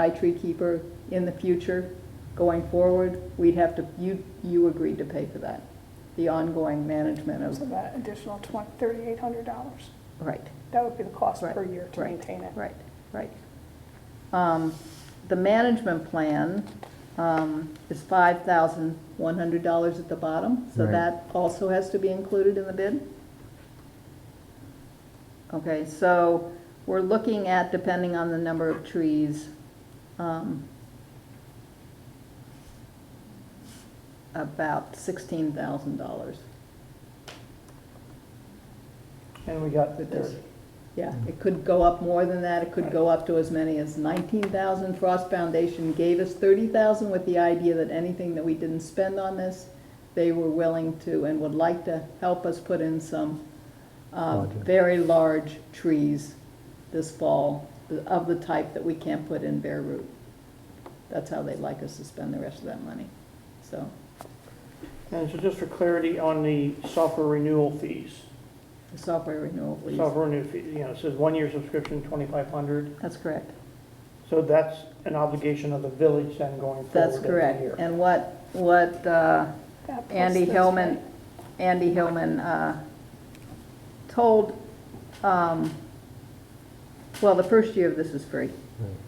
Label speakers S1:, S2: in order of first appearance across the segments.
S1: by tree keeper in the future, going forward, we'd have to, you, you agreed to pay for that, the ongoing management
S2: So
S1: of,
S2: that additional twenty, thirty-eight hundred dollars,
S1: right,
S2: that would be the cost per
S1: Right,
S2: year to
S1: right,
S2: maintain it.
S1: right, right. Um, The management plan um, is five thousand one hundred dollars at the bottom, so
S3: Right.
S1: that also has to be included in the bid? Okay, so we're looking at, depending on the number of trees, um, about sixteen thousand dollars.
S4: And we got the
S1: This-
S4: dirt.
S1: Yeah,
S4: Mm.
S1: it could go up more than that, it could go up to as many as nineteen thousand. Frost Foundation gave us thirty thousand with the idea that anything that we didn't spend on this, they were willing to and would like to help us put in some uh,
S3: Larger.
S1: very large trees this fall, the- of the type that we can't put in bare root. That's how they'd like us to spend the rest of that money, so.
S4: And so just for clarity on the software renewal fees,
S1: the Software renewal, please.
S4: software renew fee, you know, it says one-year subscription, twenty-five hundred.
S1: That's correct.
S4: So that's an obligation of the village then going forward
S1: That's
S4: every
S1: correct.
S4: year.
S1: And what, what, uh,
S2: That plus
S1: Andy
S2: this,
S1: Hillman,
S2: right?
S1: Andy Hillman uh, told, um, well, the first year of this is free.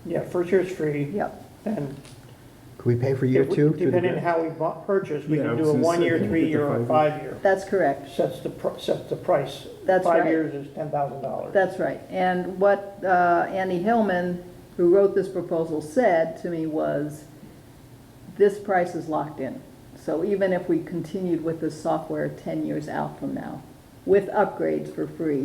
S4: Yeah, first year's free,
S1: Yep,
S4: and
S3: Could we pay for year
S4: if we-
S3: two? through the
S4: depending on
S3: grant?
S4: how we bu- purchase, we
S5: Yeah, I
S4: can
S5: was
S4: do a
S5: gonna say,
S4: one-year,
S5: can we get the
S4: three-year, or
S5: five-year?
S4: five-year.
S1: that's correct.
S4: Sets the, pr- sets the price.
S1: That's
S4: Five
S1: right.
S4: years is ten thousand dollars.
S1: That's right. And what uh, Andy Hillman, who wrote this proposal, said to me was, this price is locked in. So even if we continued with this software 10 years out from now, with upgrades for free,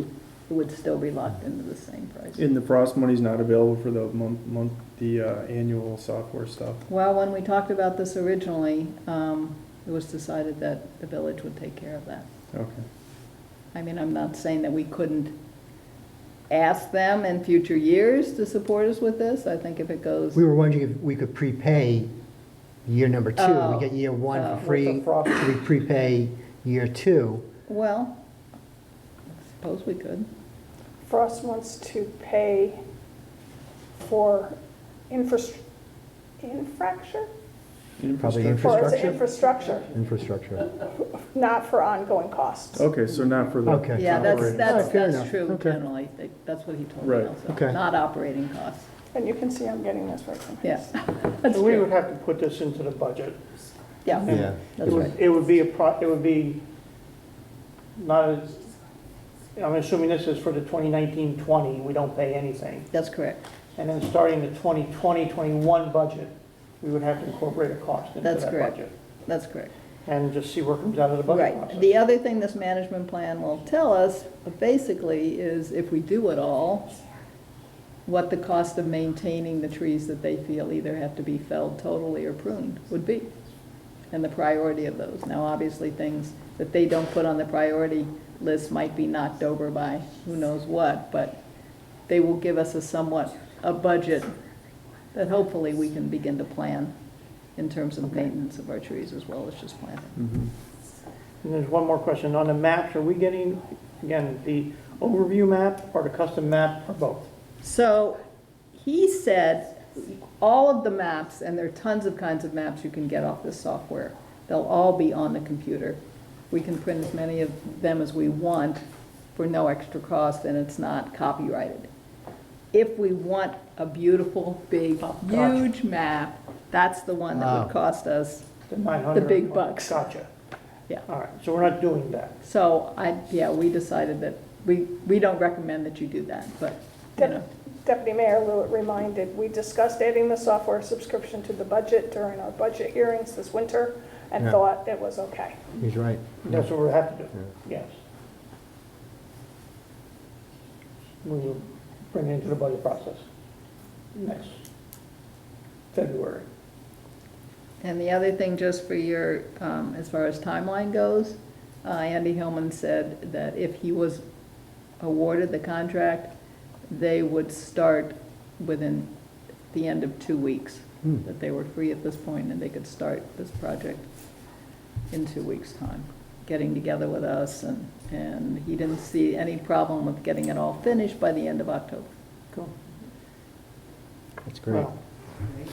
S1: it would still be locked into the same price.
S5: And the frost money's not available for the month, month, the uh, annual software stuff.
S1: Well, when we talked about this originally, um, it was decided that the village would take care of that.
S5: Okay.
S1: I mean, I'm not saying that we couldn't ask them in future years to support us with this. I think if it goes,
S3: We were wondering if we could prepay year number two.
S1: Oh.
S3: We get year one
S1: Oh.
S3: for
S1: With
S4: the
S3: free,
S4: profit.
S3: we prepay year two.
S1: well, I suppose we could.
S2: Frost wants to pay for infras- infrastructure?
S3: Probably
S2: For its
S3: Infrastructure?
S2: infrastructure,
S3: Infrastructure.
S2: not for ongoing costs.
S5: Okay, so not for the.
S3: Okay.
S1: Yeah, that's,
S5: operating.
S1: that's,
S3: Alright, fair
S1: that's
S3: enough.
S1: true
S3: Okay.
S1: generally. They- That's what he told me
S5: Right.
S1: also.
S3: Okay.
S1: Not operating costs.
S2: And you can see I'm getting this right from him.
S1: Yeah, that's
S4: So we
S1: true.
S4: would have to put this into the budget.
S1: Yeah,
S3: Yeah.
S1: that's
S4: It would-
S1: right.
S4: It would be a pro, it would be not as, I'm assuming this is for the 2019-20, we don't pay anything.
S1: That's correct.
S4: And then starting the 2020-21 budget, we would have to incorporate a cost into
S1: That's
S4: that
S1: correct.
S4: budget.
S1: That's correct.
S4: And just see where it comes out of the budget
S1: Right.
S4: process.
S1: The other thing this management plan will tell us, basically, is if we do it all, what the cost of maintaining the trees that they feel either have to be felled totally or pruned would be, and the priority of those. Now, obviously, things that they don't put on the priority list might be knocked over by who knows what, but they will give us a somewhat, a budget that hopefully we can begin to plan in terms of maintenance of our trees as well as just planting.
S5: Mhm.
S4: And there's one more question. On the maps, are we getting, again, the overview map or the custom map or both?
S1: So he said, all of the maps, and there are tons of kinds of maps you can get off this software, they'll all be on the computer. We can print as many of them as we want for no extra cost, and it's not copyrighted. If we want a beautiful, big,
S4: Oh, gosh.
S1: huge map, that's the one that
S3: Wow.
S1: would cost us.
S4: The 900?
S1: big bucks.
S4: Gotcha.
S1: Yeah.
S4: All right, so we're not doing that.
S1: So I, yeah, we decided that, we, we don't recommend that you do that, but, you
S2: Dep-
S1: know,
S2: Deputy Mayor Lewitt reminded, we discussed adding the software subscription to the budget during our budget hearings this winter and
S3: Yeah.
S2: thought it was okay.
S3: He's right.
S4: That's what we have to do, yes. We will bring it into the budget process next February.
S1: And the other thing, just for your, um, as far as timeline goes, uh, Andy Hillman said that if he was awarded the contract, they would start within the end of two weeks,
S3: Hmm.
S1: that they were free at this point and they could start this project in two weeks' time, getting together with us and, and he didn't see any problem with getting it all finished by the end of October.
S4: Cool.
S3: That's great.
S4: Well,